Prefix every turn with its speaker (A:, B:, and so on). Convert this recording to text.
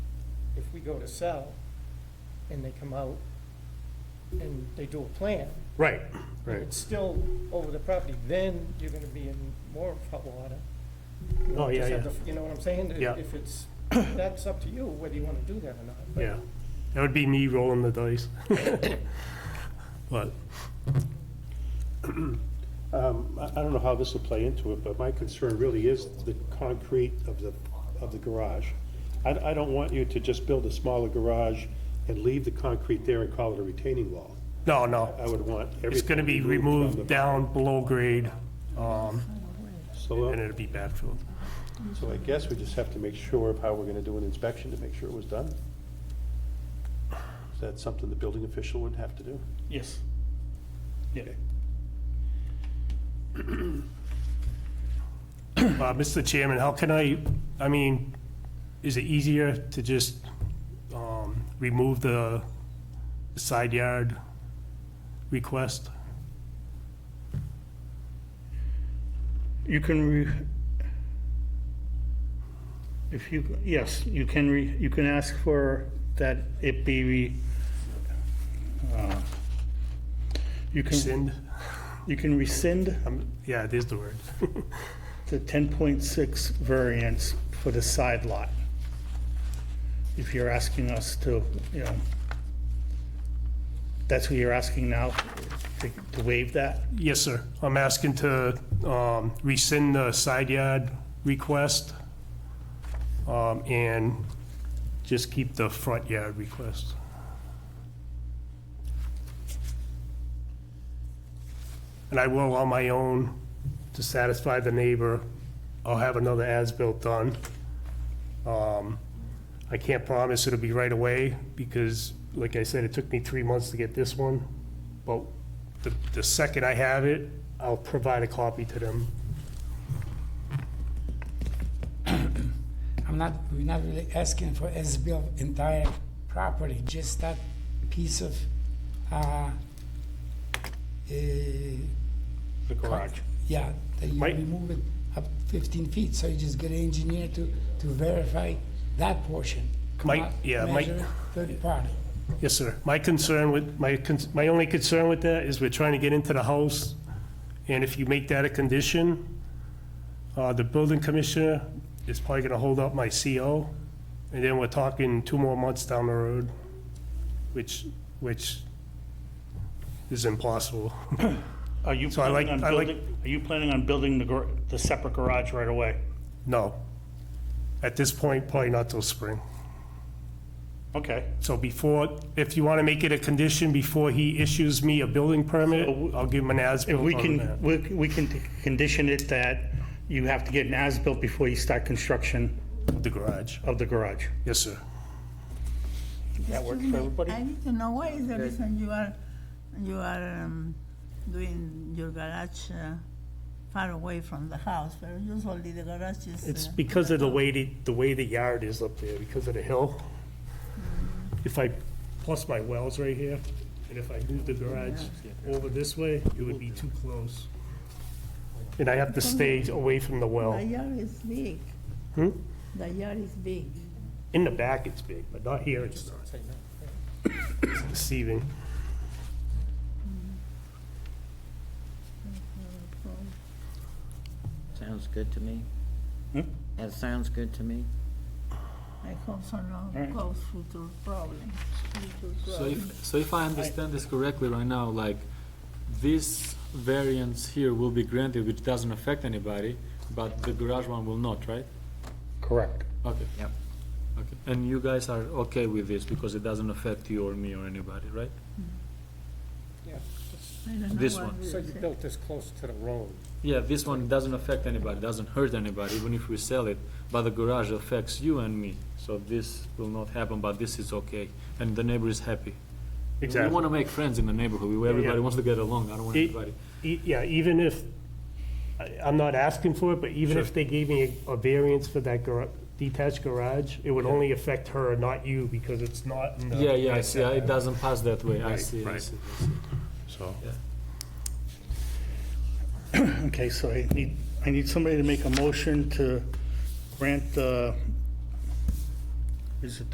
A: we go to sell, and they come out and they do a plan,
B: Right,
A: and
B: right.
A: it's still over the property, then you're gonna be in more hot water. You
B: Oh, yeah,
A: just have
B: yeah.
A: to- You know what I'm saying?
B: Yeah.
A: If it's, that's up to you, whether you wanna do that or not. but-
B: Yeah, that would be me rolling the dice. But,
C: Um, I I don't know how this will play into it, but my concern really is the concrete of the, of the garage. I, I don't want you to just build a smaller garage and leave the concrete there and call it a retaining wall.
B: no,
C: I
B: no,
C: would want everything.
B: it's gonna be removed
C: from
B: down below grade, um,
C: the- So,
B: and
C: uh,
B: it'll be backfilled.
C: so I guess we just have to make sure of how we're gonna do an inspection to make sure it was done. Is that something the building official would have to do?
A: Yes.
C: Okay.
B: Uh, Mr. Chairman, how can I, I mean, is it easier to just, um, remove the side yard request?
D: You can re, if you, yes, you can re, you can ask for that it be, re- uh, you can,
B: Rescind?
D: you can rescind
B: Um, yeah, it is the word.
D: the 10.6 variance for the side lot. If you're asking us to, you know, that's what you're asking now, to to waive that?
B: Yes, sir. I'm asking to um, rescind the side yard request um, and just keep the front yard request. And I will on my own to satisfy the neighbor. I'll have another as-built done. Um, I can't promise it'll be right away because, like I said, it took me three months to get this one. But the, the second I have it, I'll provide a copy to them.
E: I'm not, we're not really asking for as-built entire property, just that piece of, uh, eh,
B: The garage.
E: yeah, that you
B: Right.
E: remove it up fifteen feet, so you just get an engineer to, to verify that portion.
B: Mike-
E: not
B: yeah, Mike-
E: measure it, Third party.
B: Yes, sir. My concern with, my, con- my only concern with that is we're trying to get into the house, and if you make that a condition, uh, the building commissioner is probably gonna hold up my CO, and then we're talking two more months down the road, which, which is impossible.
D: Are you
B: So I like-
D: planning on
B: I like-
D: building, are you planning on building the, gar- the separate garage right away?
B: No. At this point, probably not till spring.
D: Okay.
B: So before, if you want to make it a condition before he issues me a building permit, I'll give him an
D: If
B: as-built
D: we
B: on that.
D: can, we we can t- condition it that you have to get an as-built before you start construction
B: The garage.
D: of the garage.
B: Yes, sir.
D: That works for everybody?
F: I need to know why is the reason you are, you are um, doing your garage uh, far away from the house, where usually the garage is.
B: It's
F: uh,
B: because of the way, the the way the yard is up there, because of the hill. If I, plus my well's right here, and if I move the garage over this way, it would be too close. And I have to stay away from the
F: The
B: well.
F: yard is big.
B: Hmm?
F: The yard is big.
B: In the back, it's big, but not here, it's not.
A: Say no.
B: It's deceiving.
G: Sounds good to me.
D: Hmm?
G: That sounds good to me.
F: I hope so no
D: Right.
F: cause future problems. future
H: So
F: problems.
H: if, so if I understand this correctly right now, like, this variance here will be granted, which doesn't affect anybody, but the garage one will not, right?
D: Correct.
H: Okay.
G: Yep.
H: Okay, and you guys are okay with this because it doesn't affect you or me or anybody, right?
A: Yeah,
F: I don't know
H: this
F: what
H: one.
F: we
A: so you
F: say.
A: built this close to the road.
H: Yeah, this one doesn't affect anybody, doesn't hurt anybody, even if we sell it, but the garage affects you and me, so this will not happen, but this is okay, and the neighbor is happy.
B: Exactly.
H: We wanna make friends in the neighborhood, we- everybody wants to get along, I don't want
B: E-
H: anybody.
B: e- Yeah, even if, I- I'm not asking for it, but even if
H: Sure.
B: they gave me a a variance for that gar- detached garage, it would only affect her, not you, because it's not in the...
H: Yeah, yeah, I see, I- it doesn't pass that way, I
B: Right,
H: see, I
B: right.
H: see, I see.
B: So,
D: Okay, so I need, I need somebody to make a motion to grant the, is it